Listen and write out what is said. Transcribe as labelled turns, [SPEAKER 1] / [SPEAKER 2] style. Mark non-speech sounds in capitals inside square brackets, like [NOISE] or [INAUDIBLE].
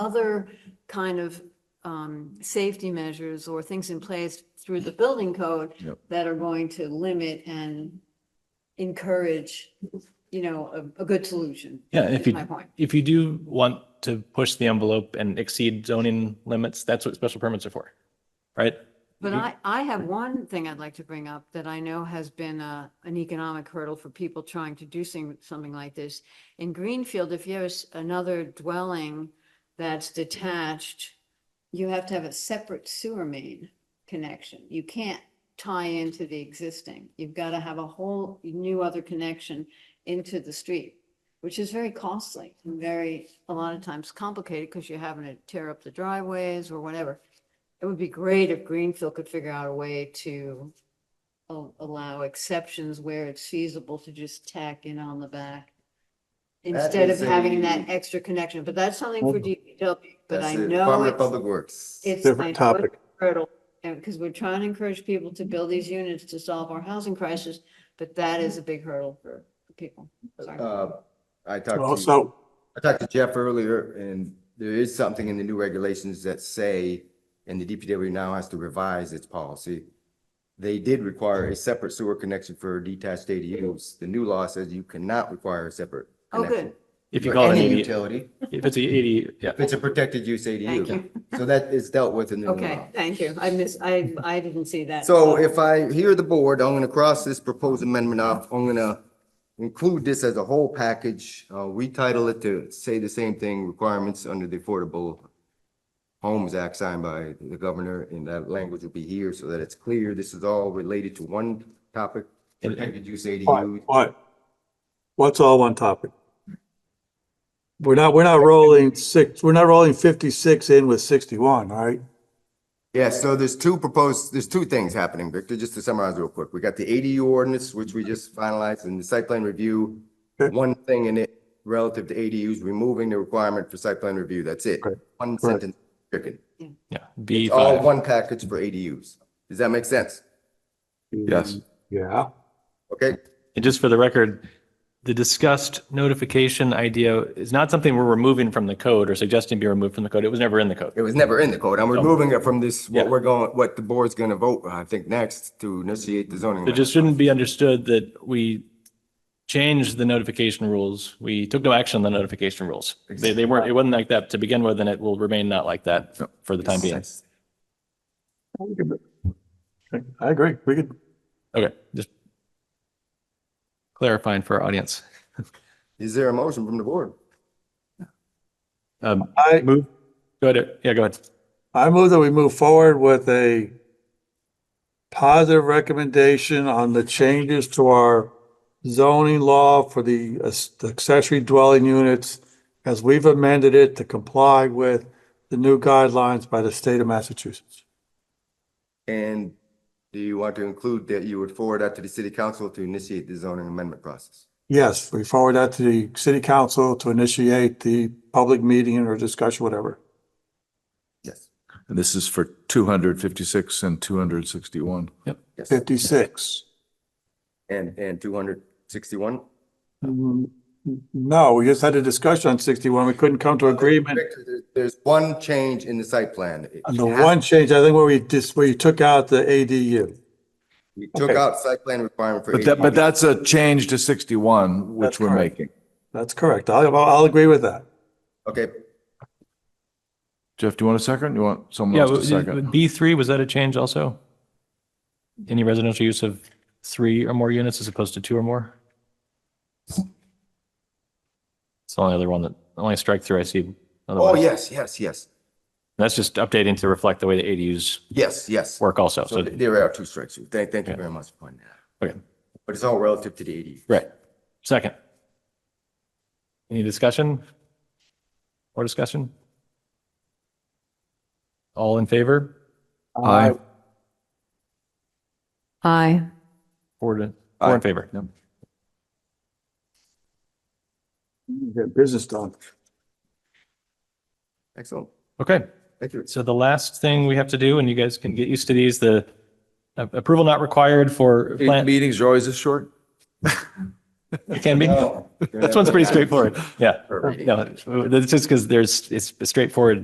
[SPEAKER 1] other kind of um, safety measures or things in place through the building code
[SPEAKER 2] Yep.
[SPEAKER 1] that are going to limit and encourage, you know, a, a good solution.
[SPEAKER 3] Yeah, if
[SPEAKER 1] My
[SPEAKER 3] you,
[SPEAKER 1] point.
[SPEAKER 3] if you do want to push the envelope and exceed zoning limits, that's what special permits are for, right?
[SPEAKER 1] But I, I have one thing I'd like to bring up that I know has been a, an economic hurdle for people trying to do sing- something like this. In Greenfield, if you have s- another dwelling that's detached, you have to have a separate sewer main connection. You can't tie into the existing. You've got to have a whole new other connection into the street, which is very costly and very, a lot of times complicated because you're having to tear up the driveways or whatever. It would be great if Greenfield could figure out a way to al- allow exceptions where it's feasible to just tack in on the back instead of
[SPEAKER 2] is a-
[SPEAKER 1] having that extra connection, but that's something for DPW, but I
[SPEAKER 2] That's it.
[SPEAKER 1] know
[SPEAKER 2] Department of
[SPEAKER 1] it's,
[SPEAKER 2] Public Works.
[SPEAKER 1] it's.
[SPEAKER 4] Different
[SPEAKER 1] I know it's
[SPEAKER 4] topic.
[SPEAKER 1] Hurdle, and, because we're trying to encourage people to build these units to solve our housing crisis, but that is a big hurdle for people. Sorry.
[SPEAKER 2] Uh, I
[SPEAKER 4] Well,
[SPEAKER 2] talked to,
[SPEAKER 4] so,
[SPEAKER 2] I talked to Jeff earlier and there is something in the new regulations that say, and the DPW now has to revise its policy. They did require a separate sewer connection for detached ADUs. The new law says you cannot require a separate.
[SPEAKER 1] Oh,
[SPEAKER 2] connection
[SPEAKER 1] good.
[SPEAKER 3] If you
[SPEAKER 2] for
[SPEAKER 3] call it an
[SPEAKER 2] any
[SPEAKER 3] eighty,
[SPEAKER 2] Utility,
[SPEAKER 3] if it's an eighty, yeah.
[SPEAKER 2] if it's a protected use
[SPEAKER 1] Thank you.
[SPEAKER 2] ADU. So that is dealt with in the new law.
[SPEAKER 1] Okay, thank you. I miss, I, I didn't see that.
[SPEAKER 2] So if I hear the board, I'm gonna cross this proposed amendment off. I'm gonna include this as a whole package. Uh, retitle it to say the same thing, requirements under the Affordable Homes Act signed by the governor, and that language will be here so that it's clear. This is all related to one topic, protected use ADU.
[SPEAKER 4] what, what? What's all one topic? We're not, we're not rolling six, we're not rolling fifty-six in with sixty-one, all right?
[SPEAKER 2] Yeah, so there's two proposed, there's two things happening, Victor, just to summarize real quick. We got the ADU ordinance, which we just finalized, and the site plan review.
[SPEAKER 4] Okay.
[SPEAKER 2] One thing in it relative to ADUs, removing the requirement for site plan review, that's it.
[SPEAKER 4] Right.
[SPEAKER 2] One
[SPEAKER 4] Right.
[SPEAKER 2] sentence, stricken.
[SPEAKER 3] Yeah, B
[SPEAKER 2] All
[SPEAKER 3] five.
[SPEAKER 2] one package for ADUs. Does that make sense?
[SPEAKER 5] Yes.
[SPEAKER 4] Yeah,
[SPEAKER 2] Okay,
[SPEAKER 3] And just for the record, the discussed notification idea is not something we're removing from the code or suggesting be removed from the code. It was never in the code.
[SPEAKER 2] it was never in the code. I'm removing it from this, what
[SPEAKER 3] Yeah.
[SPEAKER 2] we're going, what the board's gonna vote, I think, next to initiate the zoning.
[SPEAKER 3] It just shouldn't be understood that we changed the notification rules. We took no action on the notification rules. They, they weren't, it wasn't like that to begin with, and it will remain not like that for the time being.
[SPEAKER 4] I agree. We could,
[SPEAKER 3] Okay, just clarifying for our audience.
[SPEAKER 2] Is there a motion from the board?
[SPEAKER 3] Um,
[SPEAKER 4] I,
[SPEAKER 3] move, go ahead, yeah, go ahead.
[SPEAKER 4] I move that we move forward with a positive recommendation on the changes to our zoning law for the as- the accessory dwelling units as we've amended it to comply with the new guidelines by the state of Massachusetts.
[SPEAKER 2] And do you want to include that you would forward that to the city council to initiate the zoning amendment process?
[SPEAKER 4] Yes, we forward that to the city council to initiate the public meeting or discussion, whatever.
[SPEAKER 2] Yes.
[SPEAKER 5] And this is for 256 and 261.
[SPEAKER 2] Yes.
[SPEAKER 4] Fifty-six.
[SPEAKER 2] And, and two hundred sixty-one?
[SPEAKER 4] Mm, No, we just had a discussion on sixty-one. We couldn't come to agreement.
[SPEAKER 2] There's one change in the site plan. It
[SPEAKER 4] And the
[SPEAKER 2] has-
[SPEAKER 4] one change, I think where we just, where you took out the ADU.
[SPEAKER 2] You took
[SPEAKER 4] okay.
[SPEAKER 2] out site plan requirement for.
[SPEAKER 5] But that, but
[SPEAKER 2] ADU.
[SPEAKER 5] that's a change to 61,
[SPEAKER 4] That's
[SPEAKER 5] which we're
[SPEAKER 4] correct.
[SPEAKER 5] making.
[SPEAKER 4] That's correct. I'll, I'll agree with that.
[SPEAKER 2] Okay,
[SPEAKER 5] Jeff, do you want a second? You want someone
[SPEAKER 3] Yeah,
[SPEAKER 5] else to second?
[SPEAKER 3] B three, was that a change also? Any residential use of three or more units as opposed to two or more? It's the only other one that, only strike through I see.
[SPEAKER 2] oh,
[SPEAKER 3] Otherwise,
[SPEAKER 2] yes, yes, yes,
[SPEAKER 3] That's just updating to reflect the way the ADUs
[SPEAKER 2] yes, yes.
[SPEAKER 3] work also,
[SPEAKER 2] So
[SPEAKER 3] so,
[SPEAKER 2] th- there are two strikes. Thank, thank you very much for pointing that out.
[SPEAKER 3] okay,
[SPEAKER 2] But it's all relative to the eighty.
[SPEAKER 3] right. Second. Any discussion? More discussion? All in favor?
[SPEAKER 4] Uh,
[SPEAKER 5] Aye.
[SPEAKER 1] Hi.
[SPEAKER 3] Four to, four in favor.
[SPEAKER 5] Yep.
[SPEAKER 4] Get business done.
[SPEAKER 2] Excellent.
[SPEAKER 3] Okay.
[SPEAKER 2] Thank you.
[SPEAKER 3] So the last thing we have to do, and you guys can get used to these, the a- approval not required for
[SPEAKER 5] Eight
[SPEAKER 3] plan,
[SPEAKER 5] Meetings are always this short?
[SPEAKER 3] [LAUGHS] it can be.
[SPEAKER 2] No.
[SPEAKER 3] This one's pretty straightforward. Yeah.
[SPEAKER 2] Perfect.
[SPEAKER 3] No, it's just because there's, it's straightforward